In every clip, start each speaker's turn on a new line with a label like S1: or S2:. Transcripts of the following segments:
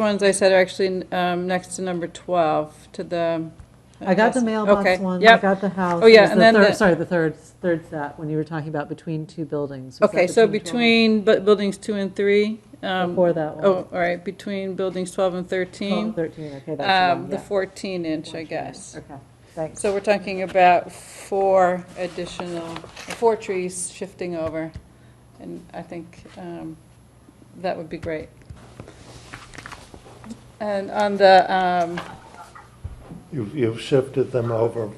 S1: ones I said are actually um, next to number 12, to the.
S2: I got the
S1: guess-
S2: mailbox
S1: okay,
S2: one, I
S1: yep.
S2: got the house.
S1: Oh,
S2: It
S1: yeah,
S2: was
S1: and
S2: the
S1: then
S2: third-
S1: the-
S2: Sorry, the third, third set, when you were talking about between two buildings. Was that
S1: Okay, so
S2: 12?
S1: between bu- buildings two and three. um,
S2: Before that one.
S1: Oh, all right, between buildings 12 and 13.
S2: 12, 13, okay, that's the
S1: um,
S2: one,
S1: The
S2: yeah.
S1: 14 inch, I guess.
S2: Okay, thanks.
S1: So we're talking about four additional, four trees shifting over, and I think um, that would be great. And on the, um,
S3: You've, you've shifted them over,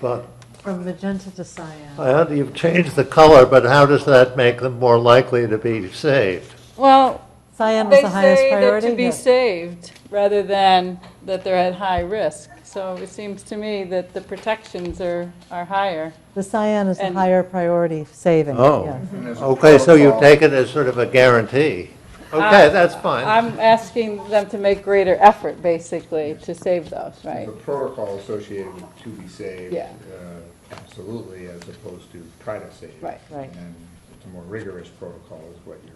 S3: but,
S2: From magenta to cyan.
S3: I had- you've changed the color, but how does that make them more likely to be saved?
S1: well,
S2: Cyan was
S1: they
S2: the highest
S1: say that
S2: priority?
S1: to be
S2: Yeah.
S1: saved, rather than that they're at high risk. So it seems to me that the protections are, are higher.
S2: The cyan is the
S1: and-
S2: higher priority saving.
S3: Oh.
S2: yeah.
S3: Okay, so you take it as sort of a guarantee. Okay, that's fine.
S1: I'm asking them to make greater effort, basically, to save those, right?
S4: The protocol associated with to be saved.
S1: Yeah.
S4: uh, Absolutely, as opposed to try to save.
S1: Right.
S2: Right.
S4: And it's a more rigorous protocol is what you're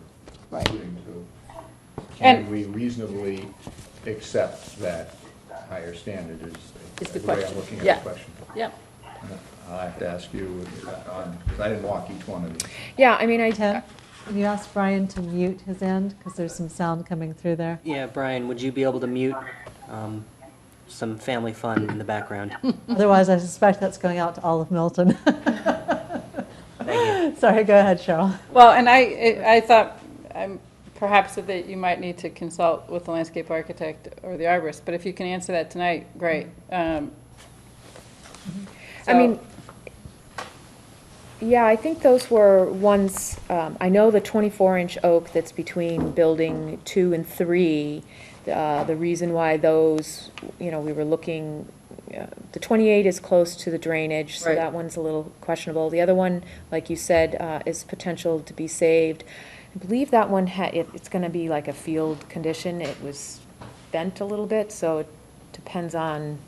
S1: Right.
S4: alluding to.
S1: And-
S4: Can we reasonably accept that higher standard is
S1: Is the
S4: the way I'm
S1: question.
S4: looking
S1: Yeah.
S4: at the question?
S1: Yep.
S4: I'll have to ask you, uh, on, because I didn't walk each one of these.
S5: Yeah, I mean, I.
S2: Tim, can you ask Brian to mute his end, because there's some sound coming through there?
S6: Yeah, Brian, would you be able to mute um, some family fun in the background?
S2: Otherwise, I suspect that's going out to all of Milton. Sorry, go ahead, Cheryl.
S1: Well, and I, I- I thought um, perhaps that you might need to consult with the landscape architect or the arborist, but if you can answer that tonight, great. Um,
S5: I mean, yeah, I think those were ones, um, I know the twenty-four inch oak that's between building two and three. Uh, the reason why those, you know, we were looking, uh, the twenty-eight is close to the drainage, so
S1: Right.
S5: that one's a little questionable. The other one, like you said, uh, is potential to be saved. I believe that one had, it, it's gonna be like a field condition. It was bent a little bit, so it depends on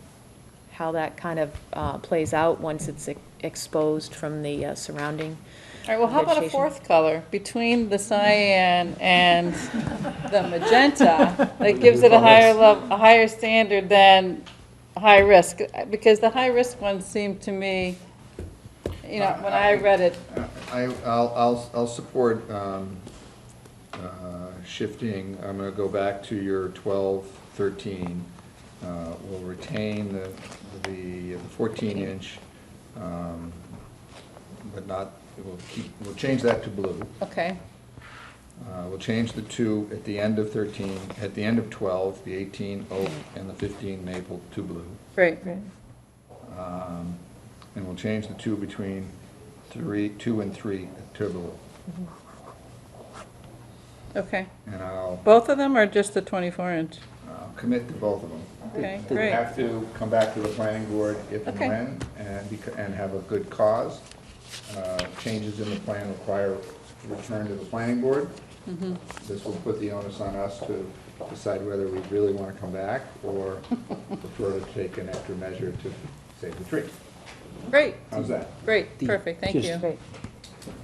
S5: how that kind of uh, plays out once it's e- exposed from the uh, surrounding.
S1: All right, well, how about a
S5: Vegetation.
S1: fourth color between the cyan and the magenta? That gives it a higher level, a higher standard than high risk, because the high risk ones seem to me, you know, when I read it,
S4: I, I'll, I'll, I'll support um, uh, shifting, I'm gonna go back to your 12, 13. Uh, We'll retain the, the 14-inch, but not, we'll keep, we'll change that to blue.
S1: okay,
S4: Uh, We'll change the two at the end of 13, at the end of 12, the 18 oak and the 15 maple to blue.
S1: great.
S4: Um, And we'll change the two between three, two and three to blue.
S1: Okay,
S4: And I'll
S1: both of them or just the 24 inch?
S4: I'll Uh, commit to both of them.
S1: Okay,
S4: We
S1: great.
S4: have to come back to the planning board if and
S1: Okay.
S4: when, and, becau- and have a good cause. Uh, Changes in the plan require return to the planning board.
S1: Mm-hmm.
S4: This will put the onus on us to decide whether we really want to come back or prefer to take an extra measure to save the tree.
S1: Great,
S4: How's that?
S1: great, perfect, thank
S6: Just-
S1: you.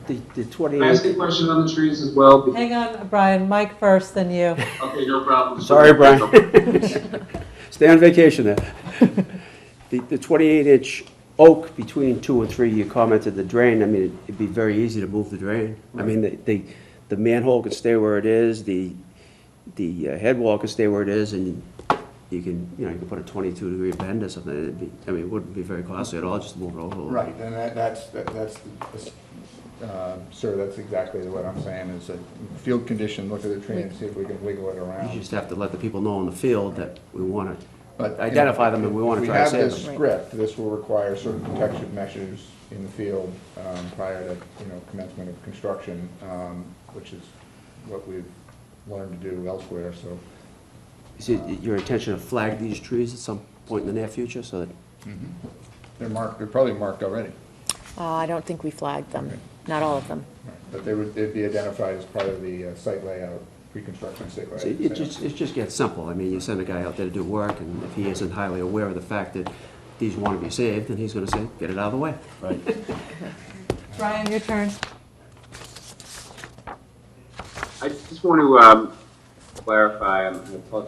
S6: The, the
S7: Can I ask
S6: 28,
S7: a question on the trees as well? Because-
S2: Hang on, Brian, Mike first, then you.
S7: Okay, no problem.
S8: Sorry, Brian. Stay on vacation there. The the 28-inch oak between two and three, you commented the drain, I mean, it'd be very easy to move the drain. I mean, the- the, the manhole can stay where it is, the, the uh, head wall can stay where it is, and you can, you know, you can put a 22-degree bend or something, it'd be, I mean, it wouldn't be very costly at all, just to move it over a little.
S4: Right, and that, that's, that- that's, the- uh, sir, that's exactly what I'm saying, is a field condition, look at the tree and see if we can wiggle it around.
S8: You just have to let the people know in the field that we want
S4: But,
S8: to
S4: you
S8: identify
S4: know,
S8: them and we
S4: if
S8: want to try to
S4: We have
S8: save
S4: this
S8: them.
S4: script, this will require certain protection measures in the field um, prior to, you know, commencement of construction, um, which is what we've learned to do elsewhere, so.
S8: Is it your intention to flag these trees at some point in the near future, so that
S4: They're marked, they're probably marked already,
S5: Uh, I don't think we flagged them, not all of them.
S4: but they would, they'd be identified as part of the uh, site layout, pre-construction site
S8: So It it
S4: layout.
S8: just, it just gets simple. I mean, you send a guy out there to do work, and if he isn't highly aware of the fact that these want to be saved, then he's gonna say, get it out of the way. Right.
S2: Brian, your turn.
S7: I just want to um, clarify, and I apologize